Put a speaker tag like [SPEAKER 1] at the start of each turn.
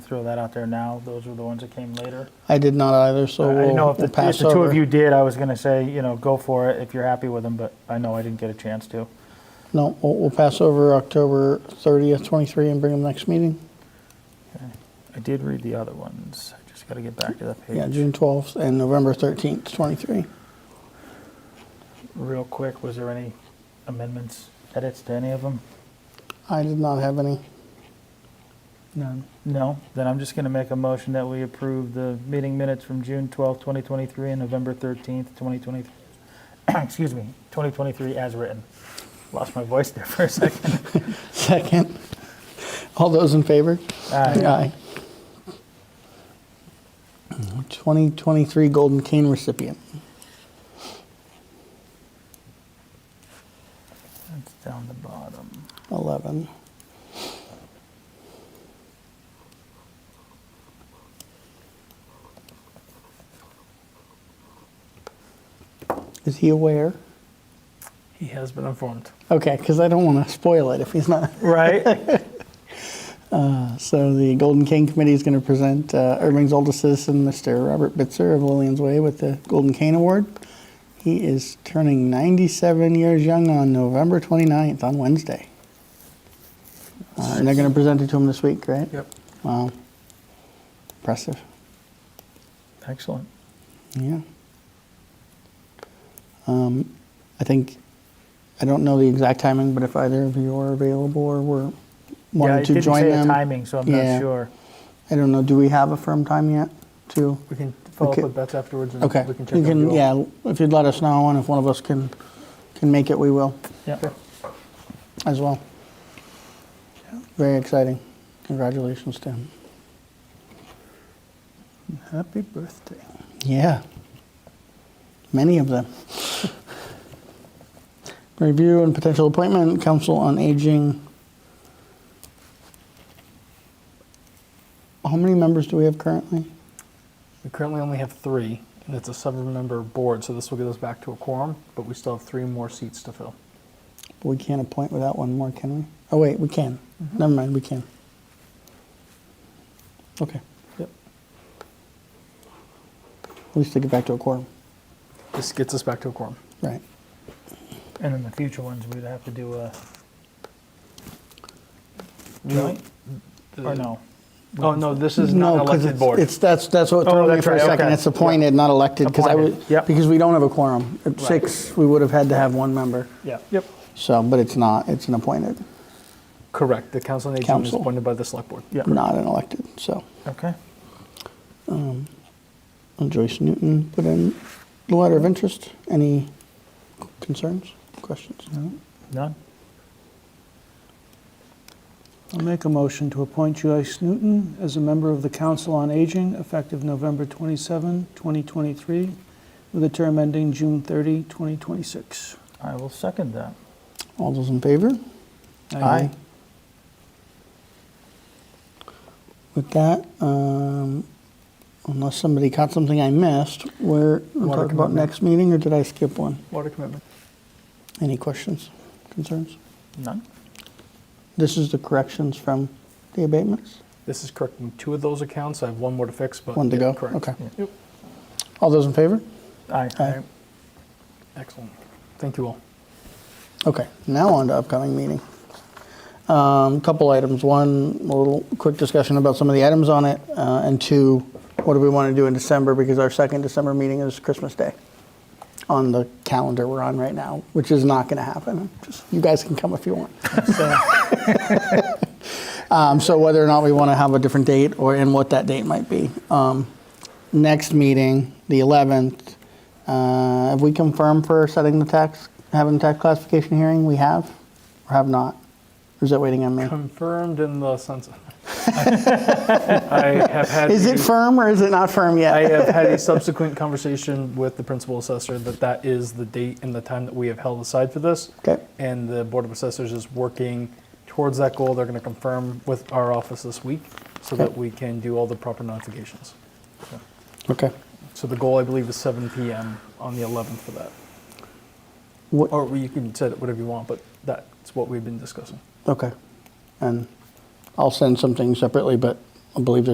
[SPEAKER 1] throw that out there now. Those were the ones that came later.
[SPEAKER 2] I did not either, so
[SPEAKER 1] I- I
[SPEAKER 2] we'll,
[SPEAKER 1] know if
[SPEAKER 2] we'll
[SPEAKER 1] the, if
[SPEAKER 2] pass
[SPEAKER 1] the two
[SPEAKER 2] over.
[SPEAKER 1] of you did, I was going to say, you know, go for it if you're happy with them, but I know I didn't get a chance to.
[SPEAKER 2] No, we'll, we'll pass over October 30th, 23, and bring them next meeting.
[SPEAKER 1] I did read the other ones. I just got to get back to that page.
[SPEAKER 2] Yeah, June 12th and November 13th, 23.
[SPEAKER 1] Real quick, was there any amendments, edits to any of them?
[SPEAKER 2] I did not have any.
[SPEAKER 1] None. No? Then I'm just going to make a motion that we approve the meeting minutes from June 12th, 2023 and November 13th, 2023. Excuse me, 2023 as written. Lost my voice there for a second.
[SPEAKER 2] Second. All those in favor?
[SPEAKER 1] Aye.
[SPEAKER 2] Aye. 2023 Golden Cane recipient.
[SPEAKER 1] That's down the bottom.
[SPEAKER 2] 11. Is he aware?
[SPEAKER 3] He has been informed.
[SPEAKER 2] Okay, because I don't want to spoil it if he's not. Uh,
[SPEAKER 1] Right?
[SPEAKER 2] So the Golden Cane Committee is going to present uh, Irving's oldest citizen, Mr. Robert Bitzer of Lillian's Way, with the Golden Cane Award. He is turning 97 years young on November 29th, on Wednesday. Uh, And they're going to present it to him this week, right?
[SPEAKER 3] Yep.
[SPEAKER 2] Wow. Impressive.
[SPEAKER 1] Excellent.
[SPEAKER 2] Yeah. Um, I think, I don't know the exact timing, but if either of you are available or were
[SPEAKER 1] Yeah,
[SPEAKER 2] wanting
[SPEAKER 1] it
[SPEAKER 2] to
[SPEAKER 1] didn't
[SPEAKER 2] join
[SPEAKER 1] say a
[SPEAKER 2] them.
[SPEAKER 1] timing, so I'm
[SPEAKER 2] Yeah.
[SPEAKER 1] not sure.
[SPEAKER 2] I don't know, do we have a firm time yet to?
[SPEAKER 3] We can follow
[SPEAKER 2] Okay.
[SPEAKER 3] up with Beth afterwards and
[SPEAKER 2] Okay.
[SPEAKER 3] we can check
[SPEAKER 2] You
[SPEAKER 3] on
[SPEAKER 2] can,
[SPEAKER 3] you all.
[SPEAKER 2] yeah, if you'd let us know and if one of us can, can make it, we will
[SPEAKER 1] Yeah.
[SPEAKER 2] as well. Very exciting. Congratulations to him.
[SPEAKER 3] Happy birthday.
[SPEAKER 2] Yeah. Many of them. Review and potential appointment, Council on Aging. How many members do we have currently?
[SPEAKER 3] We currently only have three, and it's a seven-member board, so this will get us back to a quorum, but we still have three more seats to fill.
[SPEAKER 2] We can't appoint without one more, can we? Oh, wait, we can. Never mind, we can. Okay.
[SPEAKER 3] Yep.
[SPEAKER 2] We still get back to a quorum.
[SPEAKER 3] This gets us back to a quorum.
[SPEAKER 2] Right.
[SPEAKER 1] And in the future ones, we'd have to do a
[SPEAKER 3] No.
[SPEAKER 1] joint, or
[SPEAKER 3] The-
[SPEAKER 1] no?
[SPEAKER 3] Oh, no, this is not
[SPEAKER 2] No,
[SPEAKER 3] an
[SPEAKER 2] because
[SPEAKER 3] elected
[SPEAKER 2] it's,
[SPEAKER 3] board.
[SPEAKER 2] it's, that's, that's what
[SPEAKER 1] Oh,
[SPEAKER 2] threw me
[SPEAKER 1] that's
[SPEAKER 2] for a
[SPEAKER 1] right,
[SPEAKER 2] second.
[SPEAKER 1] okay.
[SPEAKER 2] It's appointed, not elected, because I
[SPEAKER 1] Appointed,
[SPEAKER 2] would,
[SPEAKER 1] yep.
[SPEAKER 2] because we don't have a quorum. At
[SPEAKER 3] Right.
[SPEAKER 2] six, we would have had to have one member.
[SPEAKER 1] Yeah.
[SPEAKER 3] Yep.
[SPEAKER 2] So, but it's not, it's an appointed,
[SPEAKER 3] Correct. The Council on Aging is
[SPEAKER 2] Council.
[SPEAKER 3] appointed by the Select Board.
[SPEAKER 1] Yeah.
[SPEAKER 2] not an elected, so.
[SPEAKER 1] Okay.
[SPEAKER 2] And Joyce Newton put in the letter of interest. Any concerns, questions? No?
[SPEAKER 1] None?
[SPEAKER 4] I'll make a motion to appoint Joyce Newton as a member of the Council on Aging effective November 27, 2023, with a term ending June 30, 2026.
[SPEAKER 1] I will second that.
[SPEAKER 2] All those in favor?
[SPEAKER 1] Aye.
[SPEAKER 2] With that, um, unless somebody caught something I missed, we're, we'll
[SPEAKER 3] Water
[SPEAKER 2] talk about
[SPEAKER 3] commitment.
[SPEAKER 2] next meeting, or did I skip one?
[SPEAKER 3] Water commitment.
[SPEAKER 2] Any questions, concerns?
[SPEAKER 1] None?
[SPEAKER 2] This is the corrections from the abatements?
[SPEAKER 3] This is correcting two of those accounts. I have one more to fix, but.
[SPEAKER 2] One to
[SPEAKER 3] yeah,
[SPEAKER 2] go?
[SPEAKER 3] Correct.
[SPEAKER 2] Okay.
[SPEAKER 1] Yeah.
[SPEAKER 2] All those in favor?
[SPEAKER 1] Aye.
[SPEAKER 2] Aye.
[SPEAKER 3] Excellent. Thank you all.
[SPEAKER 2] Okay, now on to upcoming meeting. Um, Couple items, one, a little quick discussion about some of the items on it, uh, and two, what do we want to do in December, because our second December meeting is Christmas Day on the calendar we're on right now, which is not going to happen. Just You guys can come if you want.
[SPEAKER 1] So,
[SPEAKER 2] Um, So whether or not we want to have a different date, or and what that date might be. Um, Next meeting, the 11th, uh, have we confirmed for setting the tax, having the tax classification hearing? We have, or have not? Or is that waiting on me?
[SPEAKER 3] Confirmed in the sense. I have had.
[SPEAKER 2] Is
[SPEAKER 3] a-
[SPEAKER 2] it firm or is it not firm yet?
[SPEAKER 3] I uh, have had a subsequent conversation with the principal assessor that that is the date and the time that we have held aside for this.
[SPEAKER 2] Okay.
[SPEAKER 3] And the Board of Assessors is working towards that goal. They're going to confirm with our office this week so that
[SPEAKER 2] Okay.
[SPEAKER 3] we can do all the proper notifications.
[SPEAKER 2] Okay.
[SPEAKER 3] So the goal, I believe, is 7 PM on the 11th for that.
[SPEAKER 2] What,
[SPEAKER 3] Or you can set it whatever you want, but that's what we've been discussing.
[SPEAKER 2] okay. And I'll send something separately, but I believe there's